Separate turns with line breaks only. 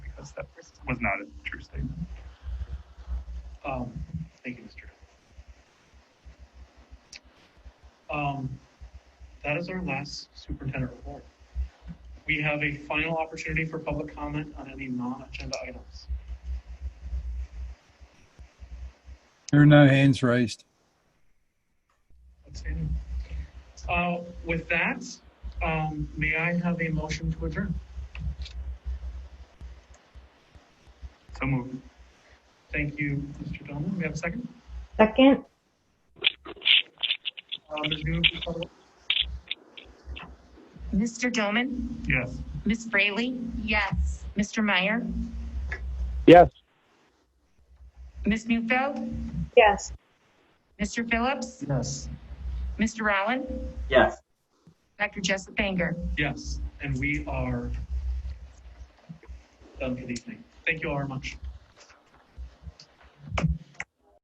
because that was not a true statement. Um, thank you, Mr. Dunn. Um, that is our last superintendent report. We have a final opportunity for public comment on any non-agenda items.
There are no hands raised.
That's it. Uh, with that, um, may I have a motion to adjourn? So moved. Thank you, Mr. Donovan. We have a second?
Second,
Uh, Ms. Newman, please call the roll.
Mr. Doman?
Yes.
Ms. Fraley? Yes. Mr. Meyer?
Yes.
Ms. Neufeld?
yes.
Mr. Phillips?
Yes.
Mr. Rowland?
Yes.
Dr. Jessup Banger?
Yes, and we are done for the evening. Thank you all very much.